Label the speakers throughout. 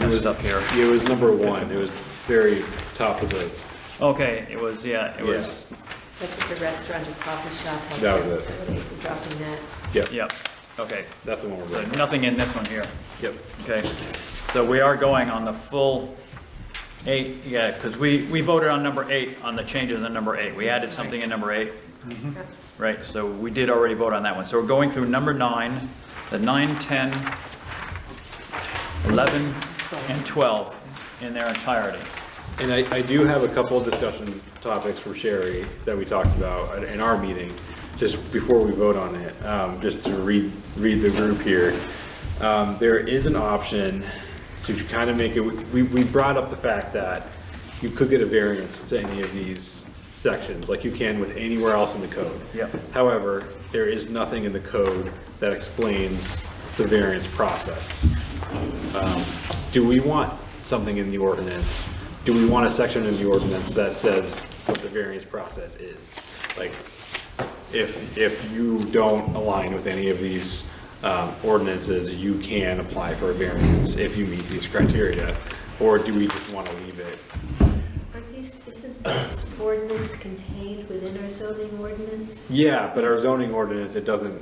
Speaker 1: messed
Speaker 2: was-
Speaker 1: up here.
Speaker 2: It was number one, it was very top of the,
Speaker 1: Okay, it was, yeah, it was,
Speaker 3: Such as a restaurant, a coffee shop,
Speaker 2: That
Speaker 3: healthcare
Speaker 2: was it.
Speaker 3: facility, we're dropping that.
Speaker 2: yep,
Speaker 1: yep, okay.
Speaker 2: that's the one we're
Speaker 1: So
Speaker 2: doing.
Speaker 1: nothing in this one here.
Speaker 2: Yep.
Speaker 1: Okay, so we are going on the full eight, yeah, because we, we voted on number eight, on the changes in number eight. We added something in number eight. Right, so we did already vote on that one. So we're going through number nine, the nine, 10, 11, and 12 in their entirety.
Speaker 2: And I, I do have a couple of discussion topics from Sherry that we talked about at- in our meeting, just before we vote on it, um, just to read, read the group here. Um, there is an option to kind of make it, we, we brought up the fact that you could get a variance to any of these sections, like you can with anywhere else in the code.
Speaker 1: Yep.
Speaker 2: However, there is nothing in the code that explains the variance process. Um, Do we want something in the ordinance? Do we want a section in the ordinance that says what the variance process is? Like, if, if you don't align with any of these um, ordinances, you can apply for a variance if you meet these criteria? Or do we just want to leave it?
Speaker 3: Aren't these, isn't this ordinance contained within our zoning ordinance?
Speaker 2: Yeah, but our zoning ordinance, it doesn't,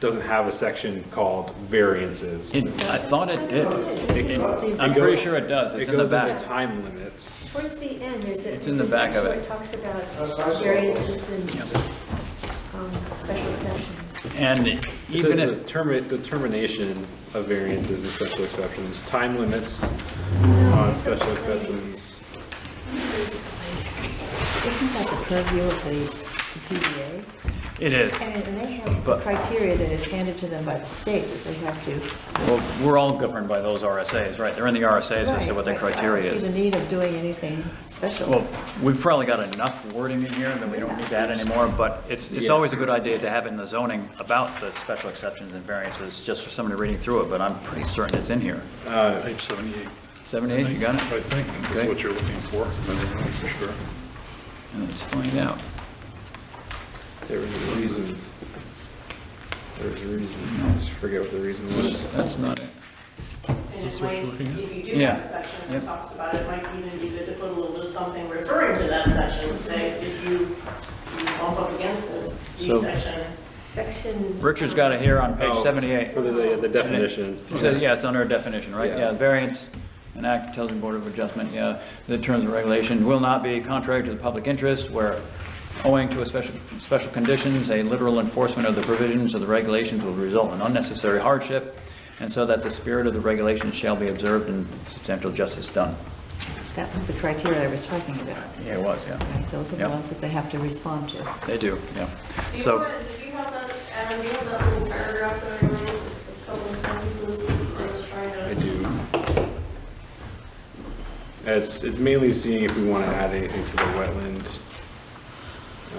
Speaker 2: doesn't have a section called variances.
Speaker 1: It- I thought it did. It- it- I'm pretty sure it does. It's in the
Speaker 2: It goes
Speaker 1: back.
Speaker 2: into time limits.
Speaker 3: Towards the end, there's a,
Speaker 1: It's in
Speaker 3: there's
Speaker 1: the
Speaker 3: a
Speaker 1: back of
Speaker 3: section
Speaker 1: it.
Speaker 3: that talks about variances and, um, special exceptions.
Speaker 1: And
Speaker 2: It
Speaker 1: even
Speaker 2: says
Speaker 1: if.
Speaker 2: the termi- the termination of variances and special exceptions, time limits on
Speaker 3: there's a
Speaker 2: special
Speaker 3: place.
Speaker 2: exceptions.
Speaker 3: There's a place.
Speaker 4: Isn't that the purview of the ZBA?
Speaker 1: It is.
Speaker 4: I mean, and they have
Speaker 1: But-
Speaker 4: criteria that is handed to them by the state that they have to.
Speaker 1: Well, we're all governed by those RSAs, right? They're in the RSAs as to what their
Speaker 4: Right, right, so
Speaker 1: criteria
Speaker 4: I don't see
Speaker 1: is.
Speaker 4: the need of doing anything special.
Speaker 1: Well, we've probably got enough wording in here that we don't need that anymore, but it's, it's
Speaker 2: Yeah.
Speaker 1: always a good idea to have in the zoning about the special exceptions and variances, just for somebody reading through it, but I'm pretty certain it's in here.
Speaker 5: Page 78,
Speaker 1: 78, you got
Speaker 5: I
Speaker 1: it?
Speaker 5: think,
Speaker 1: Okay.
Speaker 5: is what you're looking for. I don't know for sure.
Speaker 1: Let's find out.
Speaker 2: There was a reason. There was a reason. I just forget what the reason was.
Speaker 1: That's not it.
Speaker 6: And
Speaker 5: this
Speaker 6: it
Speaker 5: what
Speaker 6: might,
Speaker 5: you're looking at?
Speaker 6: if you do
Speaker 1: Yeah.
Speaker 6: have a section that
Speaker 1: Yep.
Speaker 6: talks about it, it might even be good to put a little, something referring to that section, say, if you you bump up against this
Speaker 2: So-
Speaker 6: Z section,
Speaker 3: Section.
Speaker 1: Richard's got it here on page
Speaker 2: Oh,
Speaker 1: 78.
Speaker 2: For the, the definition.
Speaker 1: It says, yeah, it's under a definition, right?
Speaker 2: Yeah.
Speaker 1: Yeah, variance, an act tells the Board of Adjustment, yeah, the terms and regulation will not be contrary to the public interest where owing to a special, special conditions, a literal enforcement of the provisions of the regulations will result in unnecessary hardship, and so that the spirit of the regulations shall be observed and substantial justice done.
Speaker 4: That was the criteria I was talking about.
Speaker 1: Yeah, it was, yeah.
Speaker 4: Right, Those are the
Speaker 1: Yep.
Speaker 4: ones that they have to respond to.
Speaker 1: They do, yeah.
Speaker 6: Do you
Speaker 1: So,
Speaker 6: want, do you have that, Adam, do you have that little paragraph that I wrote, just a couple of sentences, I was trying to.
Speaker 2: I do. It's, it's mainly seeing if we want to add anything to the wetland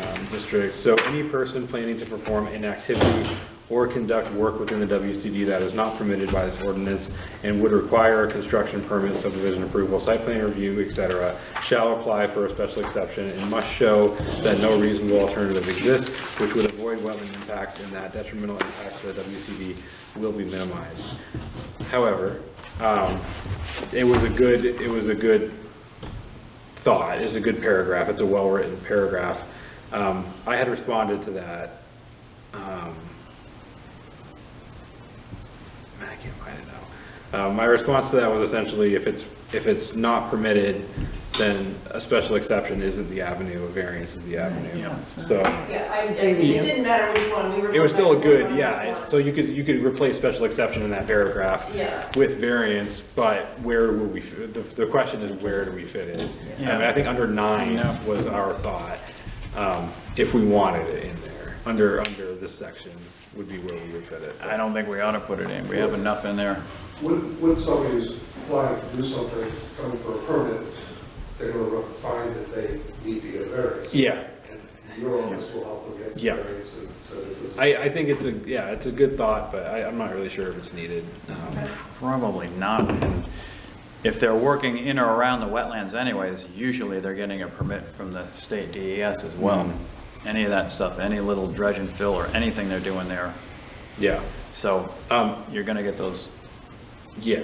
Speaker 2: um, district. So any person planning to perform an activity or conduct work within the WCD that is not permitted by this ordinance and would require a construction permit, subdivision approval, site plan review, et cetera, shall apply for a special exception and must show that no reasonable alternative exists, which would avoid wetland impacts and that detrimental impacts to the WCD will be minimized. However, um, it was a good, it was a good thought. It's a good paragraph. It's a well-written paragraph. Um, I had responded to that. um, Man, I can't find it now. Uh, my response to that was essentially, if it's, if it's not permitted, then a special exception isn't the avenue, a variance is the avenue.
Speaker 4: yeah, it's not.
Speaker 2: So
Speaker 6: Yeah, I,
Speaker 4: Agree
Speaker 6: it
Speaker 4: with you.
Speaker 6: didn't matter which one, we were.
Speaker 2: it was still a
Speaker 6: both like,
Speaker 2: good,
Speaker 6: "Oh, I
Speaker 2: yeah,
Speaker 6: just
Speaker 2: so you could, you could replace special exception in that paragraph
Speaker 6: Yeah.
Speaker 2: with variance, but where will we, fit- the, the question is where do we fit it? I mean, I think under nine was our thought, um, if we wanted it in there, under, under this section would be where we would fit it.
Speaker 1: I don't think we ought to put it in. We have enough in there.
Speaker 7: When, when somebody is applying to do something, coming for a permit, they're gonna find that they need to get a variance.
Speaker 2: Yeah,
Speaker 7: And your office will help them get
Speaker 2: Yeah.
Speaker 7: the variance, and so that there's-
Speaker 2: I, I think it's a, yeah, it's a good thought, but I, I'm not really sure if it's needed. Um,
Speaker 1: Probably not. And If they're working in or around the wetlands anyways, usually they're getting a permit from the state DES as well. Any of that stuff, any little dredge and fill or anything they're doing there.
Speaker 2: Yeah,
Speaker 1: So
Speaker 2: um,
Speaker 1: you're going to get those.
Speaker 2: yeah,